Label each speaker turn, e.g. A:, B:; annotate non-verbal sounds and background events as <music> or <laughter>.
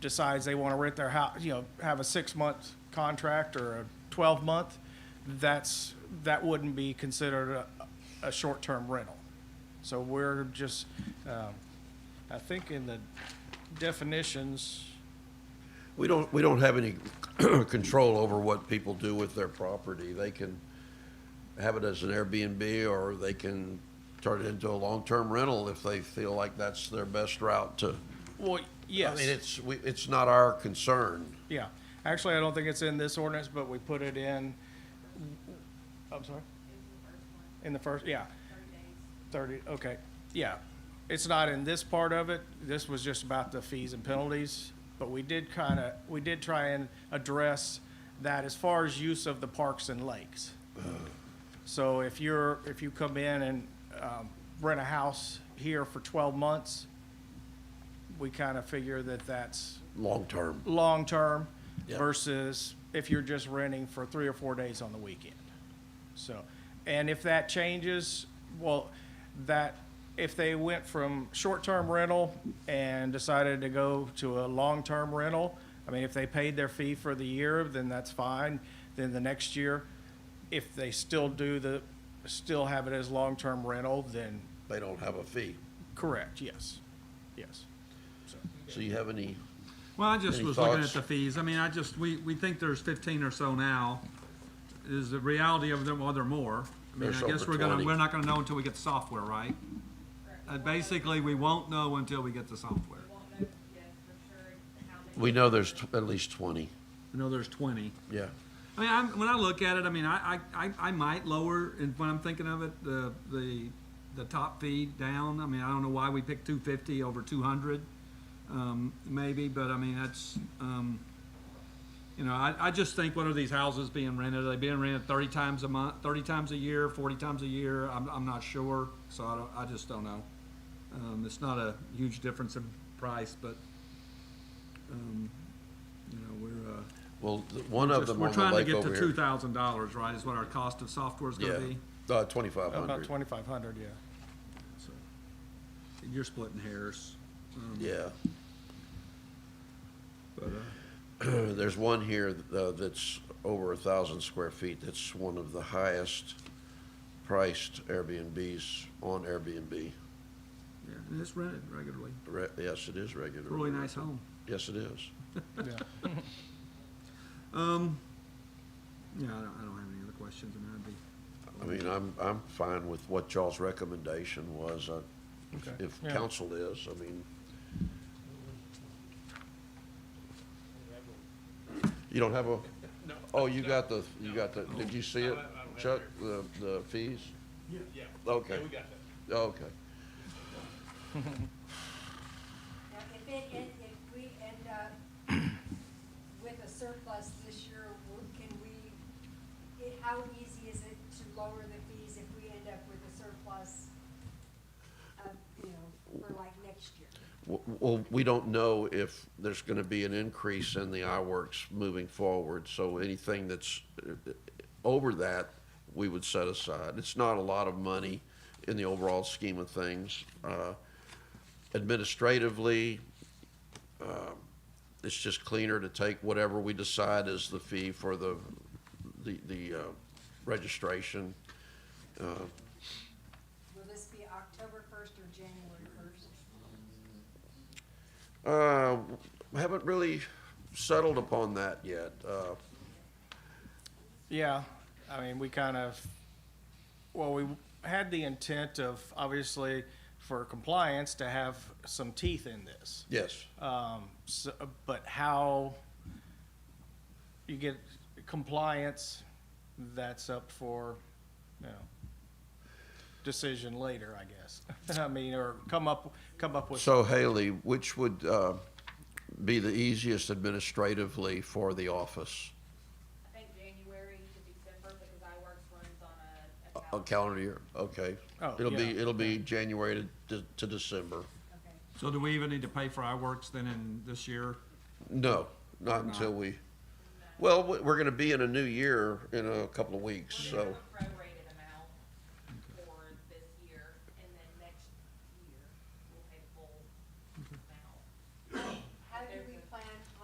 A: decides they want to rent their house, you know, have a six-month contract or a 12-month, that's, that wouldn't be considered a, a short-term rental. So we're just, um, I think in the definitions,
B: We don't, we don't have any <clears throat> control over what people do with their property. They can have it as an Airbnb, or they can turn it into a long-term rental if they feel like that's their best route to.
A: well, yes.
B: I mean, it's, we, it's not our concern.
A: Yeah, actually, I don't think it's in this ordinance, but we put it in, I'm sorry? In the first, yeah. Thirty, okay, yeah. It's not in this part of it, this was just about the fees and penalties, but we did kinda, we did try and address that as far as use of the parks and lakes. So if you're, if you come in and, um, rent a house here for twelve months, we kinda figure that that's
B: Long-term.
A: long-term
B: Yeah.
A: versus if you're just renting for three or four days on the weekend. So, and if that changes, well, that, if they went from short-term rental and decided to go to a long-term rental, I mean, if they paid their fee for the year, then that's fine. Then the next year, if they still do the, still have it as long-term rental, then
B: They don't have a fee.
A: correct, yes, yes.
B: So you have any,
C: Well, I just
B: Any
C: was looking
B: thoughts?
C: at the fees. I mean, I just, we, we think there's fifteen or so now. Is the reality of them, well, there are more. I mean,
B: There's
C: I guess
B: over
C: we're gonna,
B: 20.
C: we're not gonna know until we get the software, right? Uh, basically, we won't know until we get the software.
B: we know there's tw- at least twenty,
C: I know there's twenty.
B: yeah.
C: I mean, I'm, when I look at it, I mean, I, I, I- I might lower, and when I'm thinking of it, the, the, the top fee down. I mean, I don't know why we picked two fifty over two hundred, um, maybe, but I mean, that's, um, you know, I, I just think, what are these houses being rented? Are they being rented thirty times a month, thirty times a year, forty times a year? I'm, I'm not sure, so I don't, I just don't know. Um, it's not a huge difference in price, but, um, you know, we're, uh,
B: Well, th- one of
C: just-
B: them on the
C: We're
B: lake
C: trying to
B: over
C: get to two
B: here.
C: thousand dollars, right, is what our cost of software is gonna be?
B: Yeah, uh, twenty-five
A: About
B: hundred,
A: twenty-five hundred, yeah.
C: So, and You're splitting hairs. um,
B: yeah.
C: But, uh,
B: <clears throat> There's one here uh, that's over a thousand square feet. That's one of the highest priced Airbnbs on Airbnb.
C: yeah, and it's rented regularly.
B: Re- Yes, it is regular.
C: Really nice home.
B: Yes, it is.
A: Yeah.
C: Um, yeah, I don't, I don't have any other questions, I mean, I'd be.
B: I mean, I'm, I'm fine with what y'all's recommendation was, uh, if-
A: Okay.
B: if
A: Yeah.
B: council is, I mean. You don't have a? No. Oh, you got the, you got the, did you see it, Chuck, the, the fees? Yeah. Okay. we got that. Okay.
D: Now, if it, if, if we end up with a surplus this year, w- can we, i- how easy is it to lower the fees if we end up with a surplus of, you know, for like next year?
B: W- Well, we don't know if there's going to be an increase in the iWorks moving forward, so anything that's uh, over that, we would set aside. It's not a lot of money in the overall scheme of things. Uh, Administratively, um, it's just cleaner to take whatever we decide is the fee for the, the, the uh, registration.
D: Will this be October first or January first?
B: Uh, Haven't really settled upon that yet. Uh,
A: Yeah, I mean, we kind of, well, we had the intent of, obviously, for compliance, to have some teeth in this.
B: Yes.
A: Um, so, but how you get compliance, that's up for, you know, decision later, I guess. <laughs> I mean, or come up, come up with,
B: So Haley, which would uh, be the easiest administratively for the office,
E: I think January to December, because iWorks runs on a, a
B: a
E: calendar.
B: calendar year? Okay.
A: Oh,
B: It'll be,
A: yeah.
B: it'll be January to to December.
D: Okay.
C: So do we even need to pay for our works then in this year?
B: No, not until we, well, we- we're going to be in a new year in a couple of weeks,
E: We're gonna
B: so.
E: have a